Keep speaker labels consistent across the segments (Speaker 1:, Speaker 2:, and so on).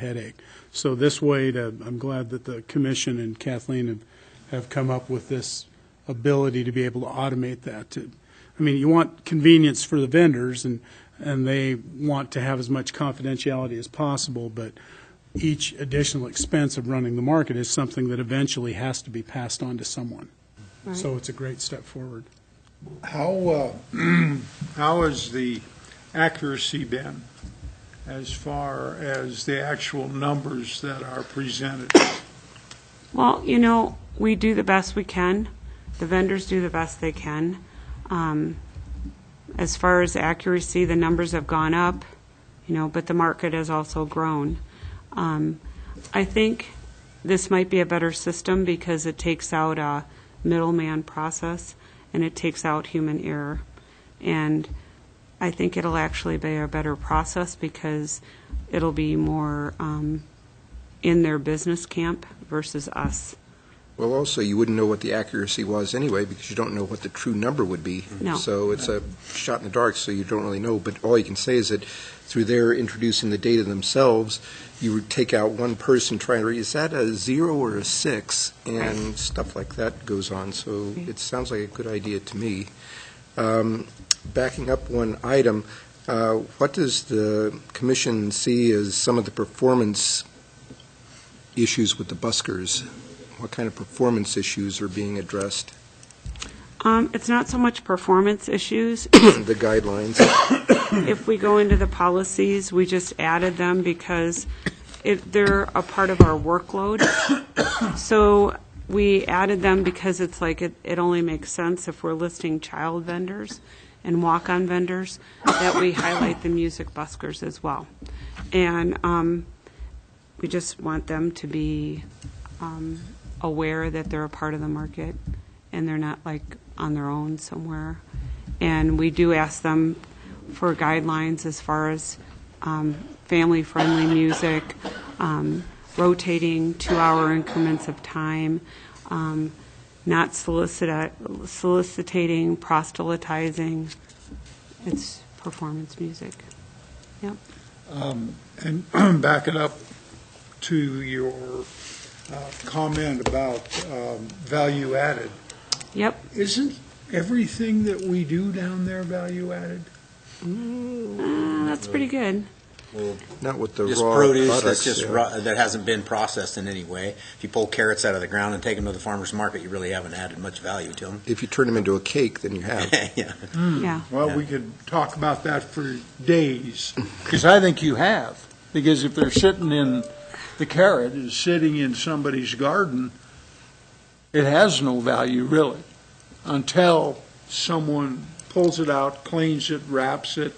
Speaker 1: headache. So this way, to, I'm glad that the commission and Kathleen have, have come up with this ability to be able to automate that. To, I mean, you want convenience for the vendors, and, and they want to have as much confidentiality as possible, but each additional expense of running the market is something that eventually has to be passed on to someone. So it's a great step forward.
Speaker 2: How, uh, how has the accuracy been as far as the actual numbers that are presented?
Speaker 3: Well, you know, we do the best we can. The vendors do the best they can. Um, As far as accuracy, the numbers have gone up, you know, but the market has also grown. Um, I think this might be a better system because it takes out a middleman process and it takes out human error. And I think it'll actually be a better process because it'll be more um, in their business camp versus us.
Speaker 4: Well, also, you wouldn't know what the accuracy was anyway, because you don't know what the true number would be.
Speaker 3: No.
Speaker 4: So it's a shot in the dark, so you don't really know. But all you can say is that through their introducing the data themselves, you would take out one person trying to read, is that a zero or a six? And stuff like that goes on, so
Speaker 3: Yeah.
Speaker 4: it sounds like a good idea to me. Um, Backing up one item, uh, what does the commission see as some of the performance issues with the buskers? What kind of performance issues are being addressed?
Speaker 3: Um, It's not so much performance issues.
Speaker 4: The guidelines?
Speaker 3: If we go into the policies, we just added them because it, they're a part of our workload. So we added them because it's like, it, it only makes sense if we're listing child vendors and walk-on vendors, that we highlight the music buskers as well. And um, we just want them to be um, aware that they're a part of the market and they're not like on their own somewhere. And we do ask them for guidelines as far as um, family-friendly music, um, rotating two-hour increments of time, um, not solicita- soliciting, proselytizing. It's performance music. Yep.
Speaker 2: Um, And back it up to your uh, comment about um, value added.
Speaker 3: Yep.
Speaker 2: Isn't everything that we do down there value added?
Speaker 3: Uh, That's pretty good.
Speaker 4: Not with the
Speaker 5: Just
Speaker 4: raw
Speaker 5: produce that's
Speaker 4: products,
Speaker 5: just
Speaker 4: yeah.
Speaker 5: raw, that hasn't been processed in any way. If you pull carrots out of the ground and take them to the farmer's market, you really haven't added much value to them.
Speaker 4: If you turn them into a cake, then you have.
Speaker 5: Yeah.
Speaker 3: Yeah.
Speaker 2: Well, we could talk about that for days, because I think you have. Because if they're sitting in, the carrot is sitting in somebody's garden, it has no value really, until someone pulls it out, cleans it, wraps it,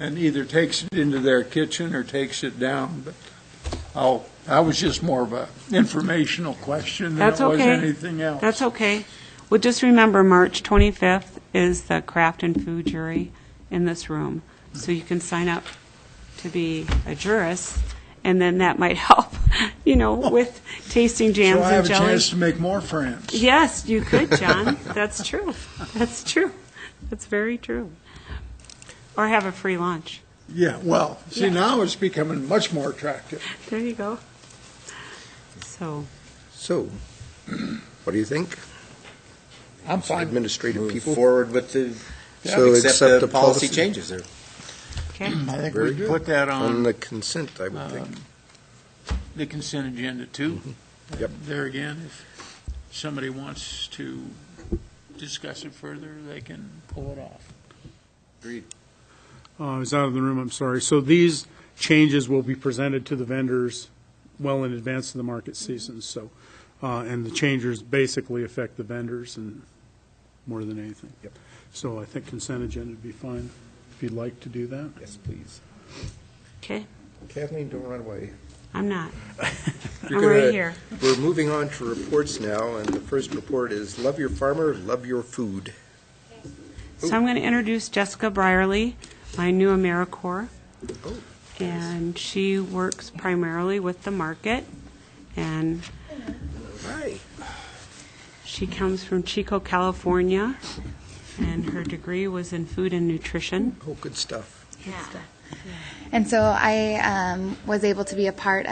Speaker 2: and either takes it into their kitchen or takes it down. But, oh, that was just more of a informational question than it
Speaker 3: That's
Speaker 2: was
Speaker 3: okay.
Speaker 2: anything else.
Speaker 3: That's okay. Well, just remember, March 25th is the craft and food jury in this room. So you can sign up to be a jurist, and then that might help, you know, with tasting
Speaker 2: So
Speaker 3: jams
Speaker 2: I have
Speaker 3: and
Speaker 2: a chance
Speaker 3: jellies.
Speaker 2: to make more friends.
Speaker 3: Yes, you could, John. That's true. That's true. That's very true. Or have a free lunch.
Speaker 2: Yeah, well, see,
Speaker 3: Yeah.
Speaker 2: now it's becoming much more attractive.
Speaker 3: There you go. So,
Speaker 4: So, what do you think?
Speaker 2: I'm fine.
Speaker 4: Administrative
Speaker 5: Move
Speaker 4: people?
Speaker 5: forward with the,
Speaker 4: So
Speaker 5: accept the policy
Speaker 4: policy-
Speaker 5: changes there.
Speaker 3: okay.
Speaker 2: I think
Speaker 4: Very
Speaker 2: we
Speaker 4: good. Um,
Speaker 2: put that
Speaker 4: On
Speaker 2: on Uh, um,
Speaker 4: the consent, I would think.
Speaker 2: the consent agenda too.
Speaker 4: Mm-hmm. Yep.
Speaker 2: There again, if somebody wants to discuss it further, they can pull it off.
Speaker 1: Uh, I was out of the room, I'm sorry. So these changes will be presented to the vendors well in advance of the market season, so, uh, and the changes basically affect the vendors and more than anything. Yep. So I think consent agenda would be fine, if you'd like to do that.
Speaker 4: Yes, please.
Speaker 3: Okay.
Speaker 4: Kathleen, don't run away.
Speaker 3: I'm not.
Speaker 4: You're
Speaker 3: I'm right
Speaker 4: gonna-
Speaker 3: here.
Speaker 4: We're moving on to reports now, and the first report is Love Your Farmer, Love Your Food.
Speaker 3: So I'm going to introduce Jessica Brierly, my new AmeriCorps.
Speaker 4: Oh,
Speaker 3: And she works primarily with the market, and
Speaker 4: Hi.
Speaker 3: she comes from Chico, California, and her degree was in food and nutrition.
Speaker 4: Oh, good stuff.
Speaker 6: And so I um, was able to be a part